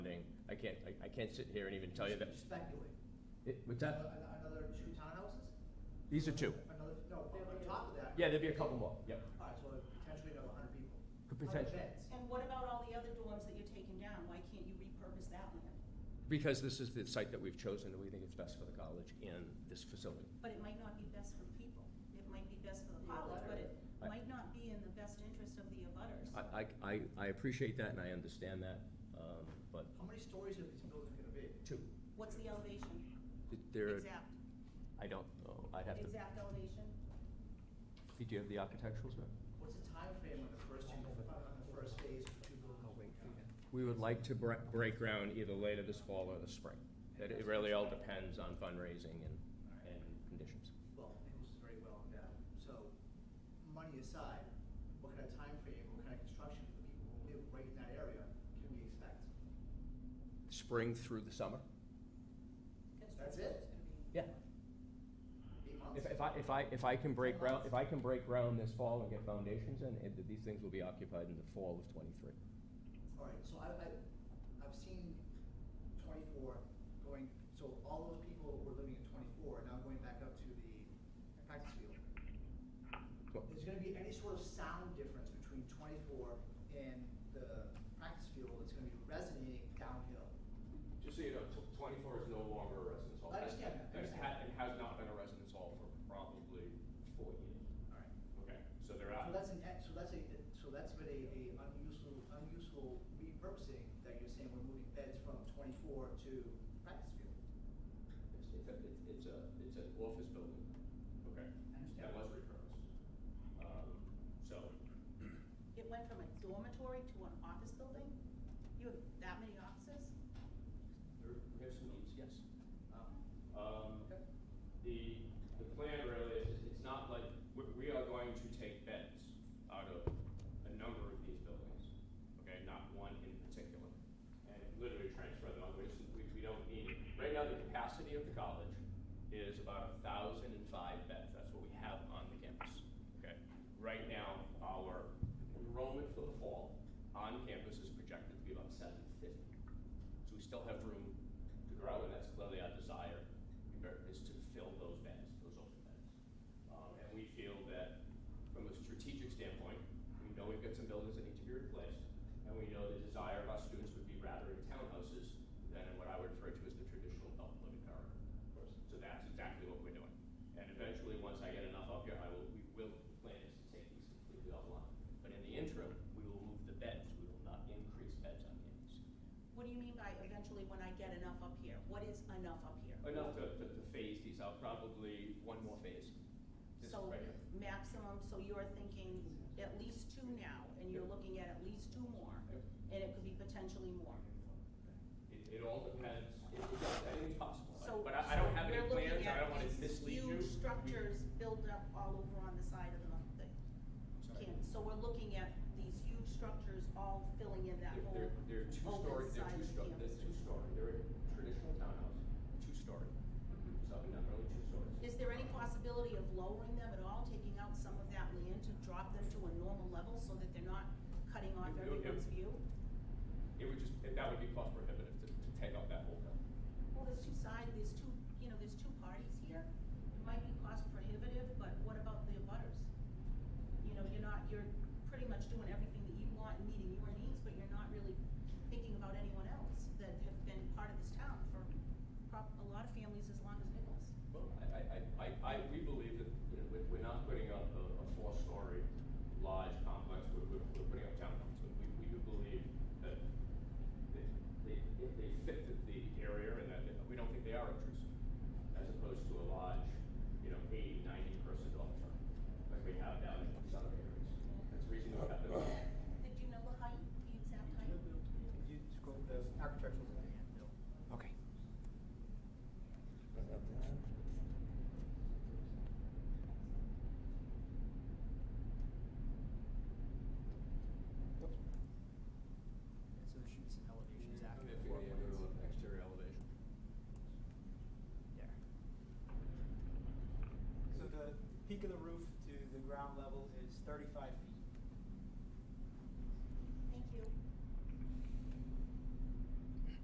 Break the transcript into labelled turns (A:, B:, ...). A: I can't, I, I can't sit here and even tell you that.
B: Speculate.
A: It- What's that?
B: Ano- Another two townhouses?
A: These are two.
B: Another, no, on top of that.
A: Yeah, there'd be a couple more, yeah.
B: All right, so potentially another hundred people.
A: Could
B: Hundred
A: potentially.
B: beds.
C: And what about all the other dorms that you're taking down? Why can't you repurpose that land?
A: Because this is the site that we've chosen, and we think it's best for the college and this facility.
C: But it might not be best for the people. It might be best for the college, but it
A: I-
C: might not be in the best interest of the abutters.
A: I, I, I- I appreciate that and I understand that, um, but
B: How many stories are these buildings gonna be?
A: two,
C: What's the elevation?
A: there,
C: Exact,
A: I don't know, I'd have to,
C: exact elevation?
A: do you have the architecturals, ma'am?
B: What's the timeframe on the first, two- on the first phase of two buildings? I'll wait for you.
A: We would like to break, break ground either later this fall or this spring. It it really all depends on fundraising and, and conditions.
B: Well, Nichols is very well endowed, so money aside, what kind of timeframe, what kind of construction for the people who live right in that area can we expect?
A: Spring through the summer?
B: That's it?
A: Yeah.
B: Eight months?
A: If, if I, if I, if I can break ground, if I can break ground this fall and get foundations in, it- these things will be occupied in the fall of twenty-three.
B: All right, so I, I, I've seen twenty-four going, so all those people were living in twenty-four are now going back up to the practice field.
A: Well,
B: Is there gonna be any sort of sound difference between twenty-four and the practice field that's gonna be resonating downhill?
A: Just so you know, tw- twenty-four is no longer a residence hall.
B: I understand that, I
A: And it ha-
B: understand.
A: and has not been a residence hall for probably four years.
B: All right.
A: Okay, so they're
B: So
A: out.
B: that's an, so that's a, so that's been a, a unuseful, unuseful repurposing that you're saying we're moving beds from twenty-four to practice field.
A: It's, it's a, it's- it's a, it's an office building. Okay.
B: I
A: That
B: understand.
A: was repurposed. Um, So,
C: It went from a dormitory to an office building? You have that many offices?
A: there, we have some needs, yes.
B: Um,
D: Um,
B: Okay.
D: the, the plan really is, it's not like, we, we are going to take beds out of a number of these buildings, okay, not one in particular. And literally transfer them out, which we, we don't need. it. Right now, the capacity of the college is about a thousand and five beds, that's what we have on the campus, okay? Right now, our enrollment for the fall on campus is projected to be about seven fifty. So we still have room to grow, and that's clearly our desire, is to fill those beds, those open beds. Um, and we feel that from a strategic standpoint, we know we've got some buildings that need to be replaced, and we know the desire of our students would be rather in townhouses than in what I would refer to as the traditional adult living corridor. So that's exactly what we're doing. And eventually, once I get enough up here, I will, we will, the plan is to take these completely offline. But in the interim, we will move the beds, we will not increase beds on campus.
C: What do you mean by eventually when I get enough up here? What is enough up here?
D: Enough to, to, to phase these out, probably one more phase. This
C: So
D: right here.
C: maximum, so you're thinking at least two now, and you're looking at at least two more,
D: Yep.
C: and it could be potentially more.
D: It, it all depends, it, it does, anything's possible,
C: So.
D: but I, I don't have
C: so
D: any
C: we're looking
D: plans, I
C: at
D: don't wanna
C: these
D: mislead you.
C: Huge
D: We-
C: structures built up all over on the side of the, the
D: Sorry.
C: campus. So we're looking at these huge structures all filling in that
D: They're,
C: whole
D: they're- they're two story,
C: open
D: they're
C: side
D: two
C: of the
D: story, they're
C: campus.
D: two story, they're a traditional townhouse, two story, so not really two stories.
C: Is there any possibility of lowering them at all, taking out some of that land to drop them to a normal level so that they're not cutting off
D: Yep, yep, yep.
C: everyone's view?
D: It would just, that would be cost prohibitive to, to take out that whole building.
C: Well, there's two sides, there's two, you know, there's two parties here. It might be cost prohibitive, but what about the abutters? You know, you're not, you're pretty much doing everything that you want and meeting your needs, but you're not really thinking about anyone else that have been part of this town for prob- a lot of families as long as Nichols.
D: Well, I, I, I, I, we believe that, you know, we're, we're not putting up a, a four-story large complex, we're, we're, we're putting up townhomes. And We, we do believe that they, they, if they fit the, the area and that, they- we don't think they are a traditional